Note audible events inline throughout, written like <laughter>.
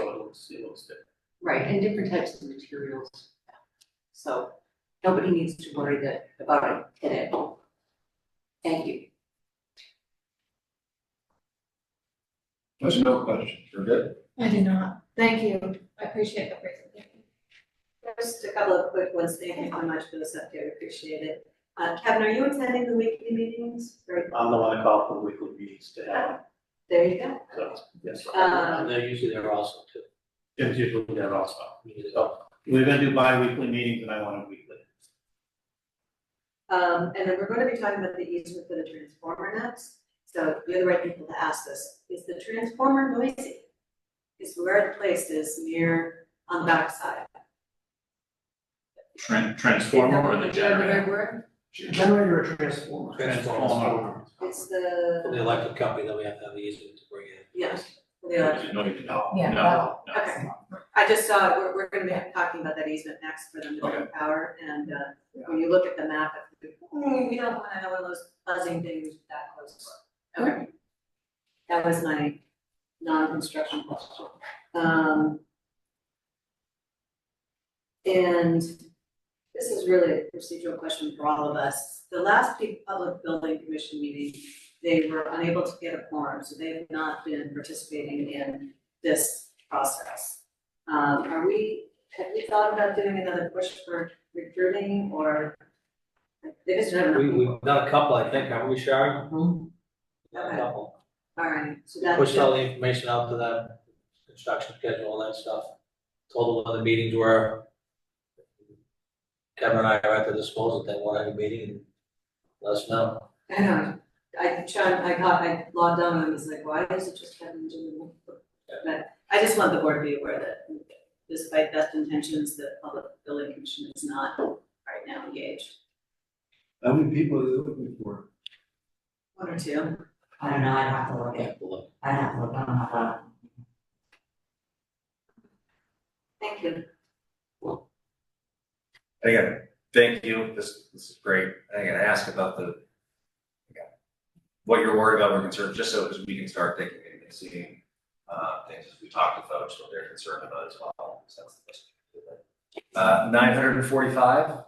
looks, it looks different. Right, and different types of materials. So nobody needs to worry that about it today. Thank you. There's no questions, we're good. I do not. Thank you. I appreciate the presentation. Just a couple of quick ones, thank you so much for this update, appreciate it. Uh, Kevin, are you attending the weekly meetings? Or- I'm the one that called for weekly meetings to have, There you go. so, yes. Um, And they're usually there also too. Jim's usually there also. So, We're gonna do bi-weekly meetings and I want it weekly. Um, and then we're gonna be talking about the easement for the transformer next, so you're the right people to ask this, is the transformer noisy? Is where the place is near, on the backside? Tran- Transformer or the generator? Generator or transformer? Transformer. It's From the the, electric company, then we have to have the easement to bring in. yes, the, No, you- no, Yeah, no, no. okay. I just saw, we're, we're gonna be talking about that easement next for them to Okay. make power, and, uh, when you look at the map, it's like, "Hmm, we don't wanna have one of those buzzing things that close to us." Okay. That was my non-construction question. Um. And this is really a procedural question for all of us. The last big public building commission meeting, they were unable to get a quorum, so they have not been participating in this process. Um, are we, have we thought about doing another push for recruiting or? They just don't have We, enough people. we've done a couple, I think, haven't we, Sharon? Done Okay. A couple. All right, so that's. Pushed all the information out to them, construction schedule, all that stuff. Told them when the meetings were. Kevin and I are at their disposal, if they want any meeting, and let us know. I know, <laughs> I, Sean, I got, I logged on and was like, why is it just Kevin doing? But I just want the board to be aware that despite best intentions, the public building commission is not right now engaged. How many people are they looking for? One or two, I don't know, I'd have to look at, We'll look. I'd have to look, I don't have a- thank you. Again, thank you, this, this is great, and again, ask about the. again, What you're worried about or concerned, just so, because we can start thinking and seeing, uh, things as we talk to folks, what they're concerned about as well, so that's the best. we can do there. Uh, nine hundred and forty-five,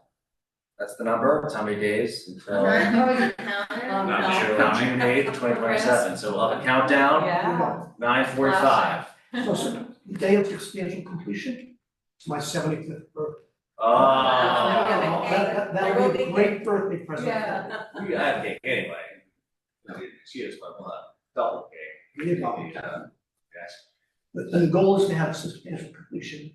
that's the number, that's how many days <laughs> until. Nine, oh, you counted? no. Not Um, sure, not June eighth, twenty twenty-seven, so we'll have a countdown, Yeah. nine forty-five. So, so the day of the expansion completion, it's my seventy-fifth birthday. Oh. Okay. That, that- that would be a great birthday present. Yeah. We got that cake anyway. Excuse my blood, double cake. We did all that. Yeah. Yes. The, the goal is to have substantial completion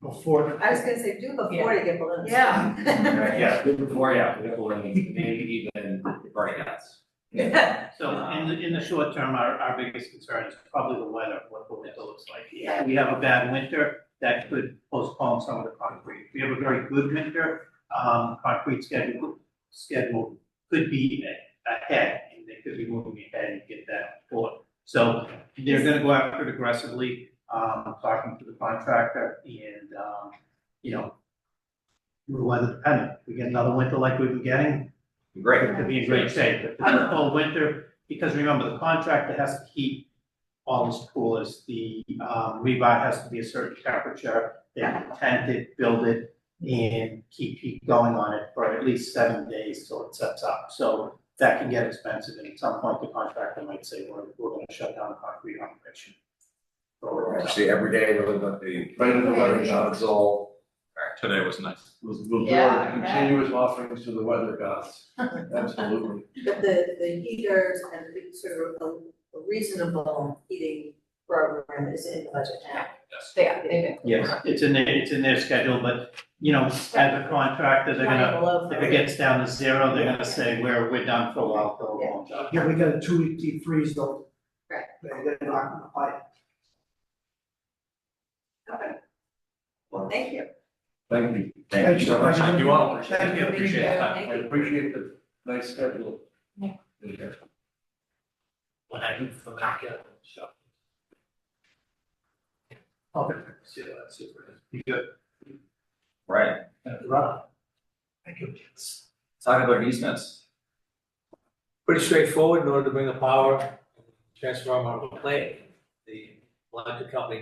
before. I was gonna say, do before you get balloons. Yeah. Right, yeah, good before, yeah, good before, maybe even burning outs. <laughs> So in the, in the short term, our, our biggest concern is probably the weather, what the winter looks like. If we have a bad winter, that could postpone some of the concrete. If we have a very good winter, um, concrete schedule, schedule could be a- ahead, and they could be moving ahead and get that forward. So they're gonna go after it aggressively, um, talking to the contractor and, um, you know, we're weather dependent. If we get another winter like we've been getting, Great, it could be in great shape, if it's a cold winter, because remember, the contractor has to keep all as cool as the, um, rebar has to be a certain temperature, they have to tent it, build it, and keep heat going on it for at least seven days till it sets up, so that can get expensive, and at some point, the contractor might say, we're, we're gonna shut down the concrete operation. Or- actually, every day we're looking at the, right in the weather, it's all. Today was nice. We'll, we'll do Yeah, our okay. continuous offerings to the weather <laughs> gods, absolutely. But the, the heaters and the sort of a- a reasonable heating program is in the budget now. Yeah, they Yes, it's in their, it's in their schedule, but, you know, as a contractor, they're gonna, Below if it gets down to zero, they're gonna say, we're, we're done for a while, for a long time. Yeah, we got a two-week deep freeze though. Right. They're gonna knock on the pipe. Okay. Well, thank you. Thank you. Thank you so much. Thank you all. Thank you. Appreciate it. Yeah. I appreciate the nice schedule. Yeah. Yeah. When I do, from back out, so. See you later, super. Right, Thank you. talk about easements. pretty straightforward in order to bring the power, transform on the plate. The electric company